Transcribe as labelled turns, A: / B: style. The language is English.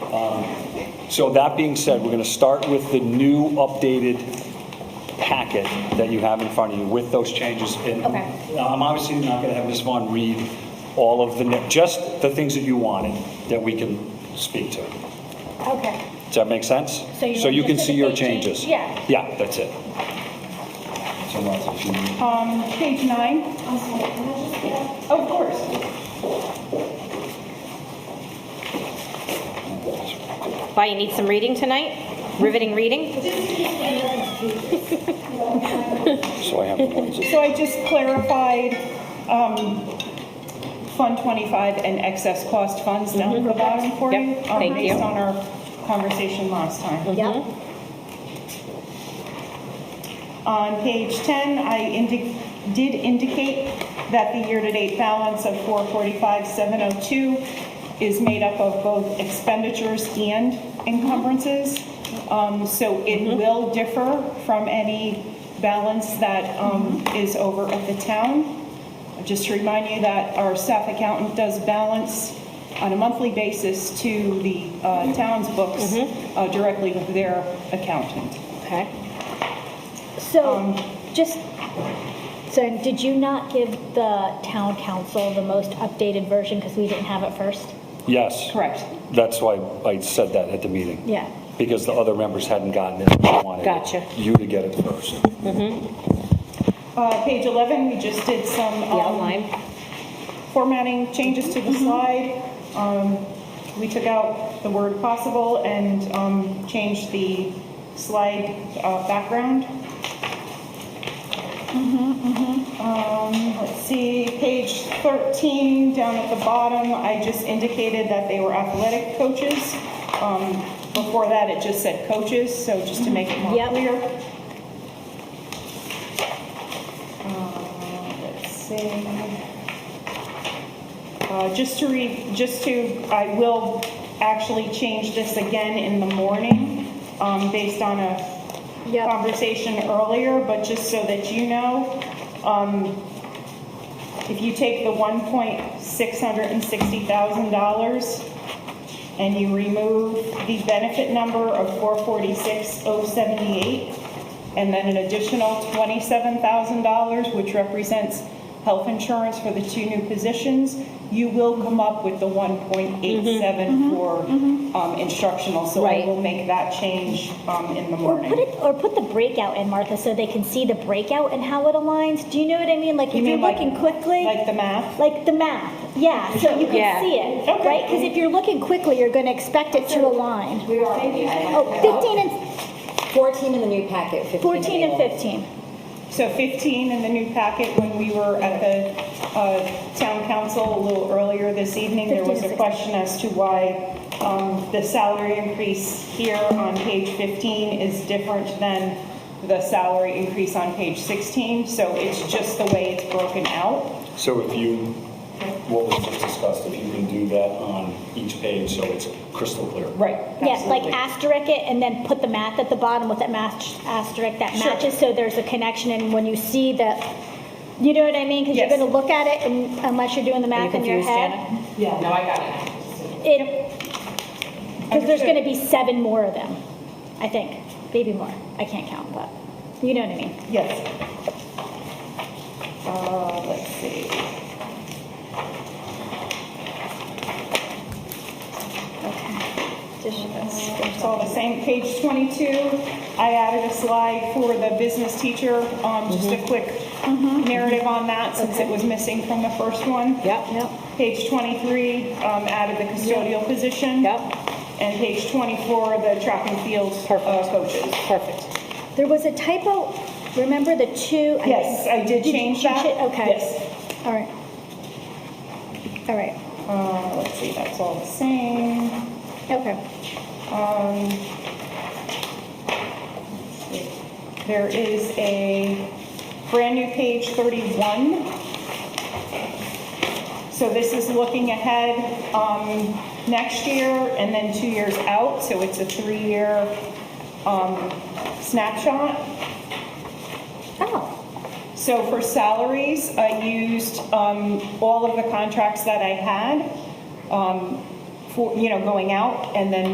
A: So that being said, we're going to start with the new updated packet that you have in front of you with those changes. And
B: Okay.
A: I'm obviously not going to have Ms. Vaughn read all of the, ne- just the things that you wanted that we can speak to.
B: Okay.
A: Does that make sense?
B: So you want
A: can
B: just
A: see
B: the
A: your
B: big change?
A: changes?
B: Yeah.
A: Yeah, that's it. So Martha, if you need-
C: Um, page nine. Of course.
D: Why, you need some reading tonight? Riveting reading?
A: So I have the ones that
C: So I just clarified, um, Fund 25 and excess cost funds down at the bottom for you.
D: Mm-hmm. Yep,
C: um,
D: thank you.
C: Based on our conversation last time.
B: Yep.
C: On page 10, I indi- did indicate that the year-to-date balance of 445,702 is made up of both expenditures and encumbrances. Um, So it will differ from any balance that um, is over at the town. Just to remind you that our staff accountant does balance on a monthly basis to the uh, town's books uh, directly with their accountant.
D: Okay.
B: So, just, so did you not give the town council the most updated version because we didn't have it first?
A: Yes.
C: Correct.
A: That's why I said that at the meeting.
B: Yeah.
A: Because the other members hadn't gotten it. I wanted
D: Gotcha.
A: You to get it first.
C: Uh, Page 11, we just did some
D: Yeah,
C: um,
D: online.
C: formatting changes to the slide. Um, We took out the word possible and um, changed the slide uh, background. Um, Let's see, page 13, down at the bottom, I just indicated that they were athletic coaches. Um, Before that, it just said coaches, so just to make it more
B: Yep.
C: clear. Uh, Let's see. Uh, Just to re, just to, I will actually change this again in the morning, um, based on a
B: Yep.
C: conversation earlier, but just so that you know, um, if you take the one point six hundred and sixty thousand dollars and you remove the benefit number of four forty-six oh seventy-eight, and then an additional twenty-seven thousand dollars, which represents health insurance for the two new positions, you will come up with the one point
B: Mm-hmm.
C: eight seven for, um, instructional, so I
D: Right.
C: will make that change, um, in
B: Or
C: the morning.
B: put it, or put the breakout in, Martha, so they can see the breakout and how it aligns. Do you know what I mean? Like, if
C: You
B: you're
C: mean like-
B: looking quickly,
C: Like the math?
B: like the math, yeah, so you
D: Yeah.
B: can see it,
C: Okay.
B: right? Because if you're looking quickly, you're going to expect it to align.
E: We are. Oh,
B: Oh, 15 and,
E: 14 in the new packet, 15.
B: 14 and 15.
C: So 15 in the new packet, when we were at the uh, town council a little earlier this evening, there was a
B: 15.
C: question as to why um, the salary increase here on page 15 is different than the salary increase on page 16. So it's just the way it's broken out.
A: So if you, what was just discussed, if you can do that on each page so it's crystal clear.
C: Right.
B: Yes, like asterisk it and then put the math at the bottom with that match asterisk that
C: Sure.
B: matches, so there's a connection, and when you see the, you know what I mean? Because you're
C: Yes.
B: gonna look at it and unless you're doing the math in your
D: confused,
B: head.
E: Yeah, no, I got it.
B: It, because there's
C: Understood.
B: gonna be seven more of them, I think, maybe more, I can't count, but, you know what I mean?
C: Yes. Uh, Let's see. It's all the same, page 22, I added a slide for the business teacher, um, just
D: Mm-hmm.
C: a quick narrative on that since it was missing from the first one.
D: Yep, yep,
C: Page 23, um, added the custodial position.
D: yep.
C: And page 24, the track and field uh,
D: Perfect.
C: coaches.
D: Perfect.
B: There was a typo, remember the two? I
C: Yes,
B: think-
C: I did
B: you
C: change that.
B: it? Okay,
C: Yes.
B: all right. All right,
C: Uh, Let's see, that's all the same.
B: okay.
C: Um, There is a brand new page 31. So this is looking ahead um, next year and then two years out, so it's a three-year um, snapshot.
B: Oh,
C: So for salaries, I used um, all of the contracts that I had um, for, you know, going out, and then